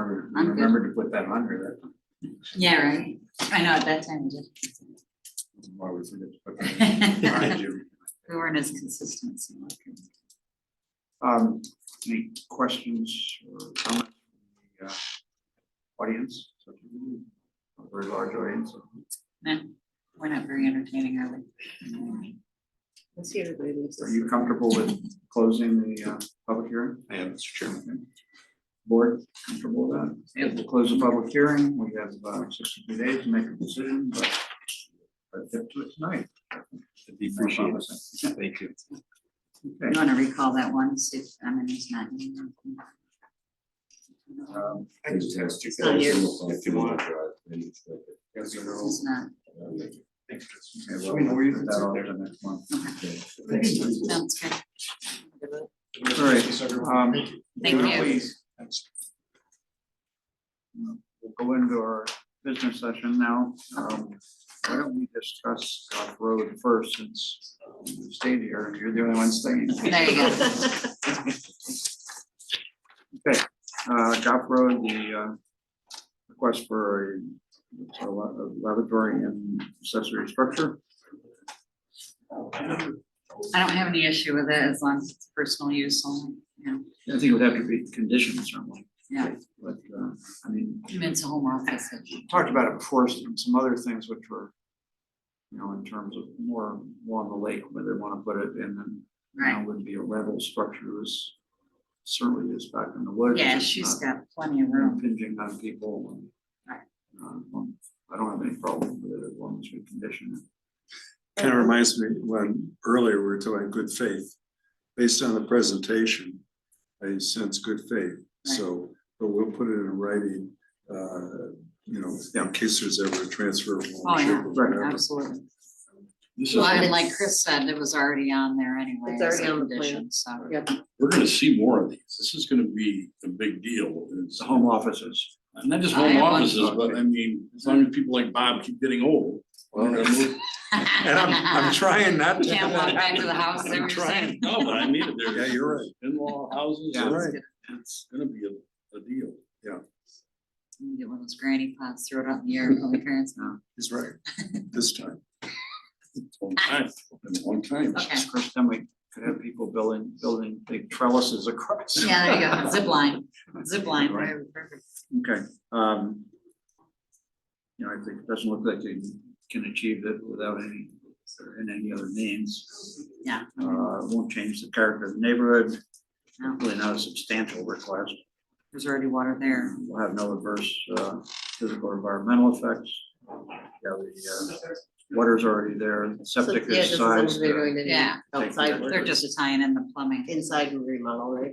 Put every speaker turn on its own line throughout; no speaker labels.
I'm good.
Remember to put that under that.
Yeah, right. I know, at that time, we did.
Why would we just put that in? Remind you.
we weren't as consistent. so I couldn't-
Um, any questions or comments from the uh, audience? A Very large audience.
No, we're not very entertaining, are we?
Let's see everybody leaves.
Are you comfortable with closing the uh, public hearing? I am, Mr. Chairman. Board, comfortable with that?
Yep.
We'll close the public hearing. We have about sixty-two days to make a decision, but but get to it tonight.
Appreciate it. Thank you.
Okay.
You wanna recall that one, see if, I mean, it's not. in there.
Um,
I just asked you
It's not here.
if you want.
yes, you know,
It's not.
okay, well, we'll leave that off to next month.
Sounds good.
All right, um,
Thank
why don't
you.
we- We'll go into our business session now. Um, why don't we discuss Goff Road first, since you stayed here and you're the only one staying.
There you go.
Okay, uh, Goff Road, the, uh, request for a- it's a la- a laboratory and accessory structure.
I don't have any issue with it as long as it's personal use only, you know,
I think it would have to be conditioned certainly,
yeah,
but, uh, I mean,
I mean, it's a home office.
we talked about it before, some, some other things which were, you know, in terms of more along the lake, where they wanna put it, and then now
Right,
would be a level structure is certainly is back in the woods.
yeah,
it's
she's
not
got plenty of room.
Impinging on people. and,
Right.
um, I don't have any problem with it as long as we condition it.
Kind of reminds me when earlier we were talking about good faith. Based on the presentation, I sense good faith. So, but we'll put it in writing, uh, you know, in case there's ever a transfer. of
Oh, yeah.
ownership or whatever.
Absolutely. Well, I mean, like Chris said, it was already on there anyway.
It's already
as a
on the plan.
condition, So,
Yep.
we're gonna see more of these. This is gonna be a big deal. It's
The home offices.
Not just
I
home
have one.
offices, but I mean, as long as people like Bob keep getting old. we're gonna move-
And I'm, I'm trying not to.
Can't walk back to the house, they
I'm
were
trying,
saying.
no, but I mean, it.
Yeah,
there's
you're right.
in-law houses,
Yeah.
Right.
it's gonna be a, a deal.
Get one of those granny pots, throw it out in the air, all the parents know.
He's right. This time.
It's a Long time, Been a long time.
Okay,
Chris, then we could have people building, building big trellises across.
yeah, there you go, zip line, zip line,
Right.
whatever, perfect.
Okay, um. You know, I think it doesn't look like they can achieve it without any, or in any other means.
Yeah.
Uh, won't change the character of the neighborhood,
No,
really not a substantial request.
There's already water there.
We'll have no adverse, uh, physical or environmental effects. Yeah, the, uh, water's already there,
So,
septic
yeah, just
is
as long as
sized.
They're
uh,
doing the
Yeah.
outside
They're
work,
just tying in the plumbing.
inside remodel, right?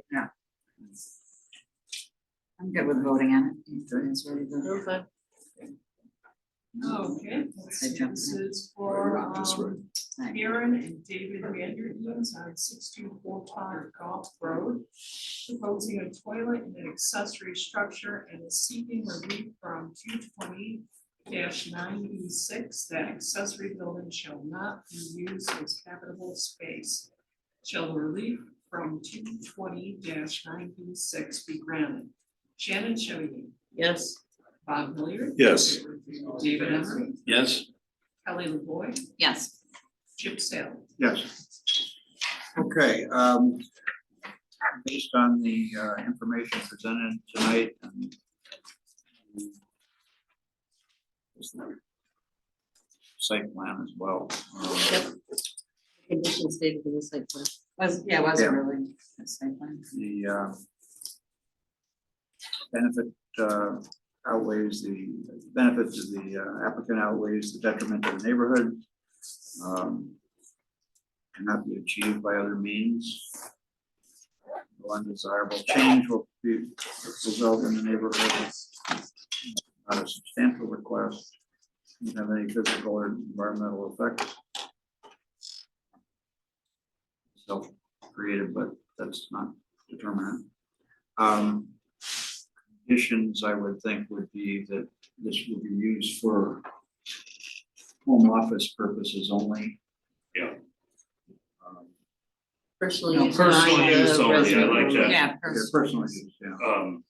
I'm good with voting on it. That's really the-
Okay.
Okay,
I
so
jumped
this is for
That's right.
um, Aaron and David Vanderheens on sixteen four five Golf Road. Proposing a toilet and an accessory structure and is seeking relief from two twenty ninety-six. That accessory building shall not be used as habitable space. Shall the relief from two twenty ninety-six be granted? Shannon Showy,
Yes,
Bob Hilliard.
Yes.
David Emery.
Yes,
Kelly LaVoy,
Yes,
Chip Saylor.
Yes. Okay, um, based on the uh, information presented tonight and site plan as well. uh,
conditions stated in the site plan.
was, yeah, was it
Yeah.
really? a site plan?
The uh, benefit uh, outweighs the, benefits of the uh, applicant outweighs the detriment to the neighborhood. um, Cannot be achieved by other means. No Undesirable change will be result in the neighborhood. Not a substantial request. Don't have any physical or environmental effects. Self-created, but that's not determinant. Um, Conditions, I would think, would be that this will be used for home office purposes only.
Yeah.
Um,
Personally,
No,
used by
personal use
the
only, I like
resident.
Yeah,
that.
yeah,
first.
Personal use, yeah.
um,